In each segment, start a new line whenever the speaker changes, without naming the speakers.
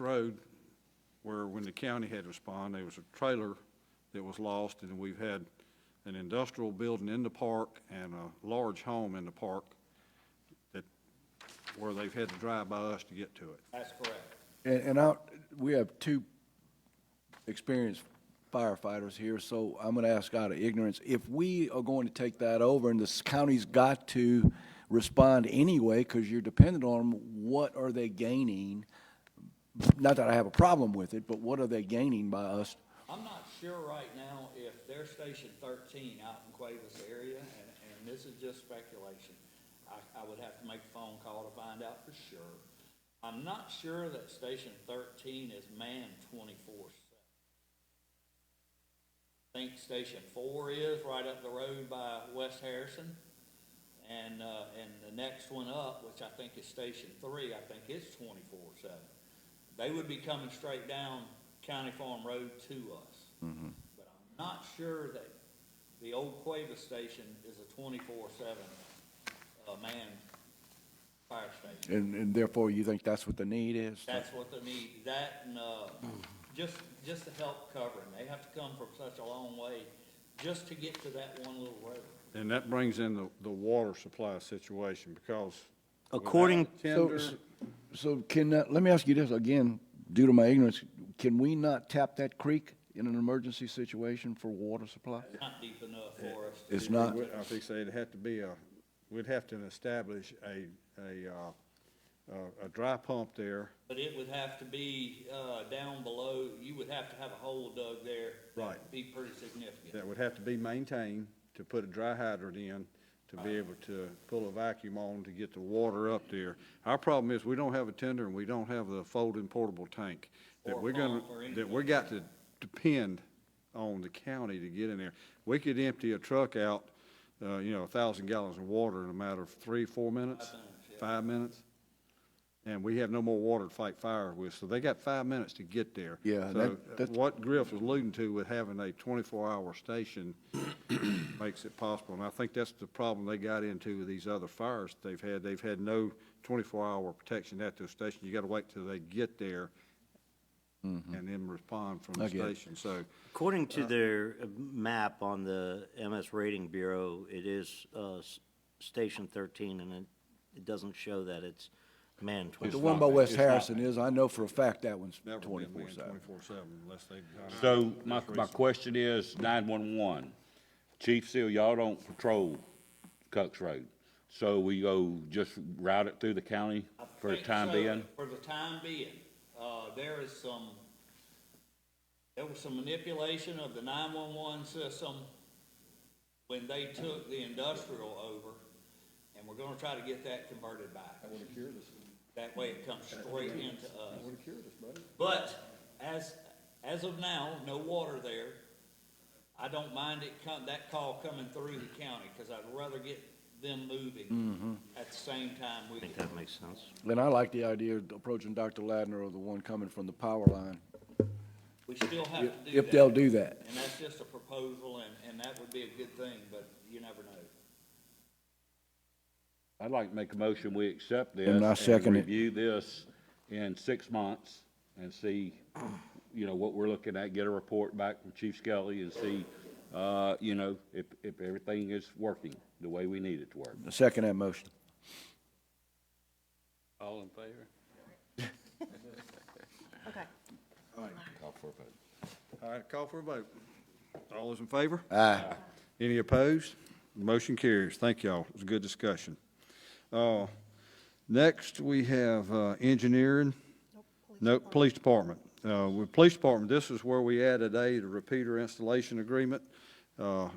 road where when the county had to respond, there was a trailer that was lost, and we've had an industrial building in the park and a large home in the park that, where they've had to drive by us to get to it.
That's correct.
And, and I, we have two experienced firefighters here, so I'm gonna ask out of ignorance, if we are going to take that over and this county's got to respond anyway, cause you're dependent on them, what are they gaining? Not that I have a problem with it, but what are they gaining by us?
I'm not sure right now if they're Station thirteen out in Cuevas area, and, and this is just speculation. I, I would have to make a phone call to find out for sure. I'm not sure that Station thirteen is manned twenty-four seven. I think Station four is right up the road by West Harrison. And, uh, and the next one up, which I think is Station Three, I think is twenty-four seven. They would be coming straight down County Farm Road to us. But I'm not sure that the old Cueva station is a twenty-four seven, uh, manned fire station.
And, and therefore you think that's what the need is?
That's what they need, that and, uh, just, just to help covering. They have to come from such a long way just to get to that one little road.
And that brings in the, the water supply situation, because. without
According-
a
So,
Tender,
so can, that- let me ask you this again, due to my ignorance, can we not tap that creek in an emergency situation for water supply?
Not deep enough for us. to
It's
do
not.
I think so, it'd have to be a, we'd have to establish a, a, uh, a, a dry pump there.
But it would have to be, uh, down below, you would have to have a hole dug there. that
Right.
would Be pretty significant.
that would have to be maintained to put a dry hydrant in to be able to pull a vacuum on to get the water up there. Our problem is we don't have a tender and we don't have the folding portable tank
Or
that
a
we're gonna,
pump or anything.
that we're got to depend on the county to get in there. We could empty a truck out, uh, you know, a thousand gallons of water in a matter of three, four minutes,
minutes, yeah.
five minutes. And we have no more water to fight fire with, so they got five minutes to get there.
Yeah,
So
that- that's-
what Griff was alluding to with having a 24-hour station makes it possible, and I think that's the problem they got into with these other fires they've had. They've had no 24-hour protection at their station. You got to wait till they get there and then respond from
Mm-hmm. I
the
get it.
station. So
According to their uh, map on the MS Rating Bureau, it is uh, s- Station 13, and it- it doesn't show that it's manned
The
24.
one by West Harrison is, I know for a fact that one's
never been
twenty-four
manned
seven.
24/7 unless they.
So my, my question is nine-one-one. Chief Seal, y'all don't patrol Cox Road. So we go just route it through the county
I
for the
think
time
so,
being?
For the time being, uh, there is some, there was some manipulation of the nine-one-one system when they took the industrial over, and we're gonna try to get that converted back. That way it comes straight into us. But as, as of now, no water there. I don't mind it come, that call coming through the county, cause I'd rather get them
Mm-hmm.
moving at the same time we
I think
can.
that makes sense.
And I like the idea of approaching Dr. Ladner or the one coming from the power line,
We still have to
if,
do that.
if they'll do that.
And that's just a proposal, and, and that would be a good thing, but you never know.
I'd like to make a motion, we accept this.
And I second it.
Review this in six months and see, you know, what we're looking at, get a report back from Chief Skelly and see, uh, you know, if, if everything is working the way we need it to work.
I Second that motion.
All in favor?
Okay.
Call for a vote.
All right, call for a vote. All those in favor?
Aye.
Any opposed? The Motion carries. Thank y'all. It was a good discussion. Uh, Next, we have uh, engineering. No, police department. Uh, With police department, this is where we added a repeater installation agreement. Uh,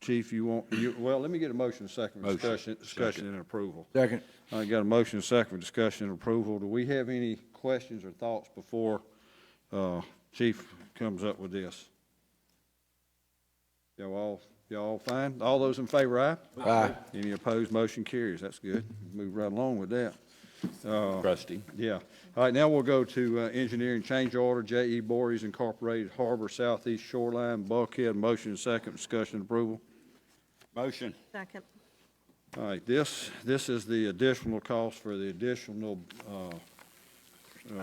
Chief, you want, you, well, let me get a motion, a second, for
Motion.
discussion, discussion and approval.
Second.
I got a motion, a second, for discussion and approval. Do we have any questions or thoughts before uh, Chief comes up with this? Y'all all, y'all all fine? All those in favor, aye?
Aye.
Any opposed, motion carries. That's good. Move right along with that.
Trustee.
Yeah. All right, now we'll go to uh, engineering change order, J.E. Bories Incorporated Harbor Southeast Shoreline Bulkhead. Motion, second, discussion and approval.
Motion.
Second.
All right, this, this is the additional cost for the additional uh,